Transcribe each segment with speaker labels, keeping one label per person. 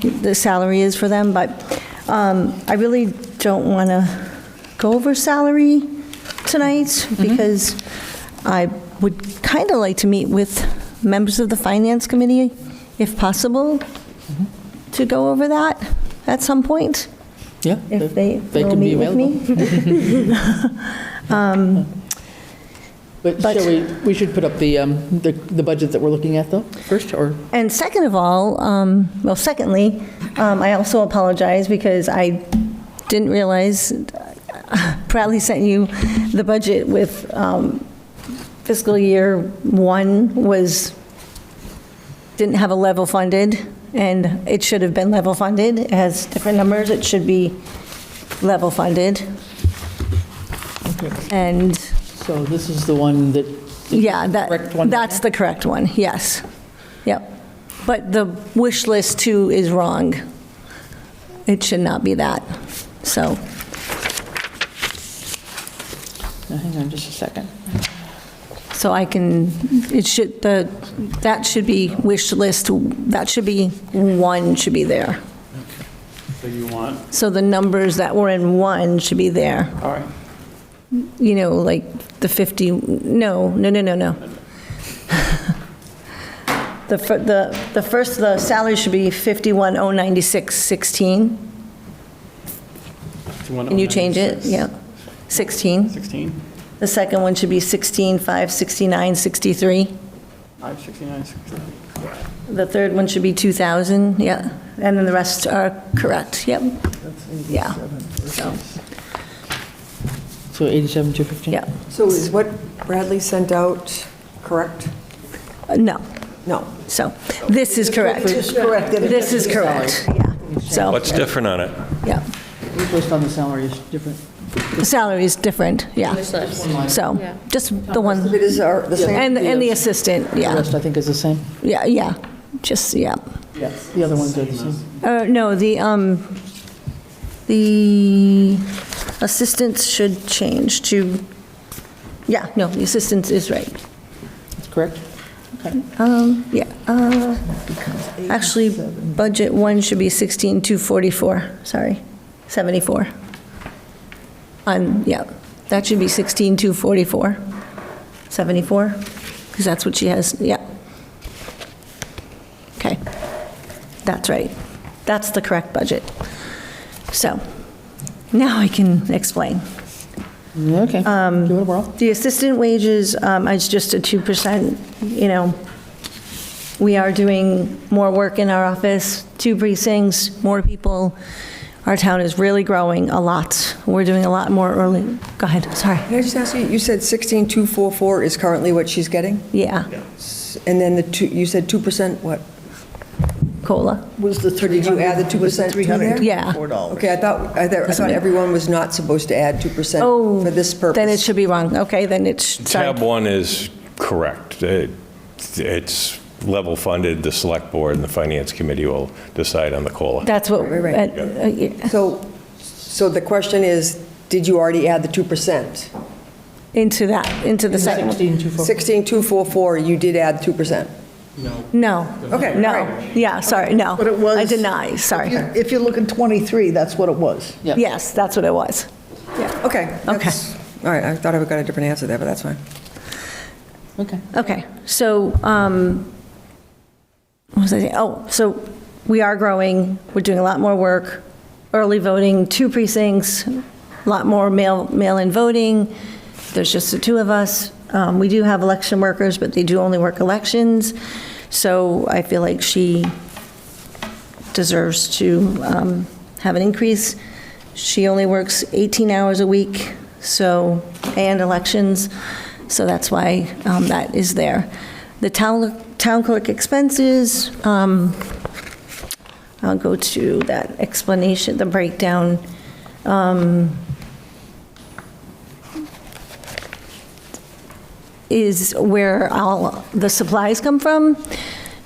Speaker 1: the salary is for them, but um, I really don't want to go over salary tonight
Speaker 2: Mm-hmm.
Speaker 1: because I would kind of like to meet with members of the Finance Committee, if possible,
Speaker 2: Mm-hmm.
Speaker 1: to go over that at some point,
Speaker 2: Yeah.
Speaker 1: if they
Speaker 2: They
Speaker 1: will
Speaker 2: can be
Speaker 1: meet with me.
Speaker 2: But
Speaker 1: But-
Speaker 2: shall we, we should put up the, um, the the budget that we're looking at, though, first, or?
Speaker 1: And second of all, um, well, secondly, um, I also apologize because I didn't realize, proudly sent you the budget with um, fiscal year one was, didn't have a level funded, and it should have been level funded. It has different numbers, it should be level funded. And,
Speaker 2: So this is the one that.
Speaker 1: yeah,
Speaker 2: Correct
Speaker 1: that,
Speaker 2: one?
Speaker 1: that's the correct one, yes. Yep. But the wish list too is wrong. It should not be that. So,
Speaker 2: Now, Hang on just a second.
Speaker 1: so I can, it should, the, that should be wish list, that should be, one should be there.
Speaker 3: So you want,
Speaker 1: So the numbers that were in one should be there.
Speaker 2: All right.
Speaker 1: You know, like the 50, no, no, no, no, no. The, fir- the, the first, the salary should be oh, 51,096.16.
Speaker 3: you want.
Speaker 1: Can you change it? Yeah, 16.
Speaker 3: 16,
Speaker 1: The second one should be 16, 5, 69, 63.
Speaker 3: 5, 69, 63.
Speaker 1: The third one should be 2,000, yeah. And then the rest are correct, yep. Yeah, so,
Speaker 2: So 87, 215?
Speaker 1: yeah.
Speaker 4: So is what Bradley sent out correct?
Speaker 1: Uh, No,
Speaker 4: No.
Speaker 1: so, this is correct.
Speaker 4: It's correct. that it
Speaker 1: This is
Speaker 4: doesn't say.
Speaker 1: correct, yeah. So,
Speaker 5: What's different on it?
Speaker 1: yeah.
Speaker 2: We placed on the salary is different.
Speaker 1: The salary is different, yeah. So, just the
Speaker 4: If
Speaker 1: one,
Speaker 4: It is our- the same.
Speaker 1: and, and the assistant,
Speaker 2: The
Speaker 1: yeah,
Speaker 2: rest, I think, is the same.
Speaker 1: yeah, yeah, just, yeah.
Speaker 2: Yes. The other ones are the same.
Speaker 1: Uh, no, the, um, the assistance should change to, yeah, no, the assistance is right.
Speaker 2: That's correct?
Speaker 1: Um, yeah, uh, actually, budget one should be 16,244, sorry, 74. On, yeah, that should be 16,244, 74, because that's what she has, yeah. Okay, that's right. That's the correct budget. So, now I can explain. Um,
Speaker 2: Okay. Give it a whirl.
Speaker 1: The assistant wages, um, is just a 2%, you know, we are doing more work in our office, two precincts, more people. Our town is really growing a lot. We're doing a lot more early, go ahead, sorry.
Speaker 4: Can I just ask you, you said 16,244 is currently what she's getting?
Speaker 1: Yeah,
Speaker 4: And then the two, you said 2% what?
Speaker 1: COLA,
Speaker 2: Was the 30?
Speaker 4: Did you add the 2% to there?
Speaker 1: yeah.
Speaker 4: Okay, I thought, I thought- I thought everyone was not supposed to add 2%
Speaker 1: Oh,
Speaker 4: for this purpose.
Speaker 1: Then it should be wrong, okay, then it's,
Speaker 5: Tab
Speaker 1: sorry.
Speaker 5: one is correct. It- It's level funded, the select board and the finance committee will decide on the COLA.
Speaker 1: That's what,
Speaker 4: Right, right.
Speaker 1: uh, uh, yeah.
Speaker 4: So, so the question is, did you already add the 2%?
Speaker 1: into that, into the second.
Speaker 2: 16, 214.
Speaker 4: 16,244, you did add 2%.
Speaker 1: No,
Speaker 4: Okay, all
Speaker 1: no,
Speaker 4: right.
Speaker 1: yeah, sorry, no.
Speaker 6: But it was.
Speaker 1: I deny, sorry.
Speaker 6: If you- If you look in 23, that's what it was.
Speaker 2: Yeah.
Speaker 1: Yes, that's what it was.
Speaker 4: Okay. that's- All right, I thought I got a different answer there, but that's fine.
Speaker 2: Okay.
Speaker 1: Okay, so, um, what was I saying? Oh, so we are growing, we're doing a lot more work, early voting, two precincts, a lot more mail, mail-in voting, there's just the two of us. Um, We do have election workers, but they do only work elections, so I feel like she deserves to um, have an increase. She only works 18 hours a week, so, and elections, so that's why um, that is there. The town town clerk expenses, um, I'll go to that explanation, the breakdown. um, Is where all the supplies come from.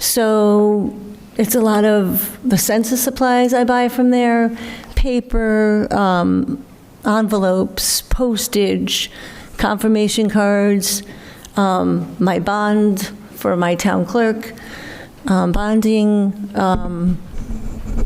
Speaker 1: So it's a lot of the census supplies I buy from there, paper, um, envelopes, postage, confirmation cards, um, my bond for my town clerk, um, bonding, um,